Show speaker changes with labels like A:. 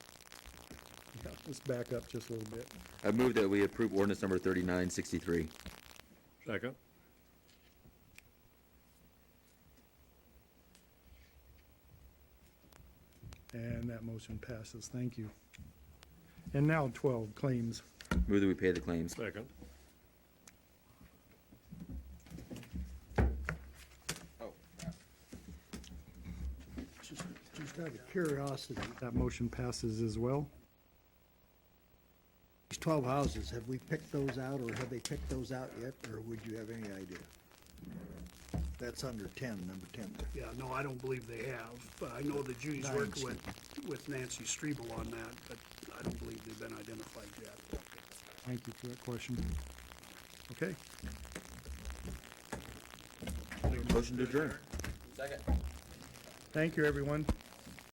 A: let's back up just a little bit.
B: I move that we approve ordinance number 3963.
C: Second.
A: And that motion passes. Thank you. And now 12, claims.
B: Move that we pay the claims.
C: Second.
A: Just just out of curiosity, that motion passes as well.
D: These 12 houses, have we picked those out, or have they picked those out yet, or would you have any idea? That's under 10, number 10.
E: Yeah, no, I don't believe they have. But I know the Judy's
D: Nine
E: worked with, with Nancy Strebel on that, but I don't believe they've been identified yet.
A: Thank you for that question. Okay,
B: Motion to adjourn.
A: thank you, everyone.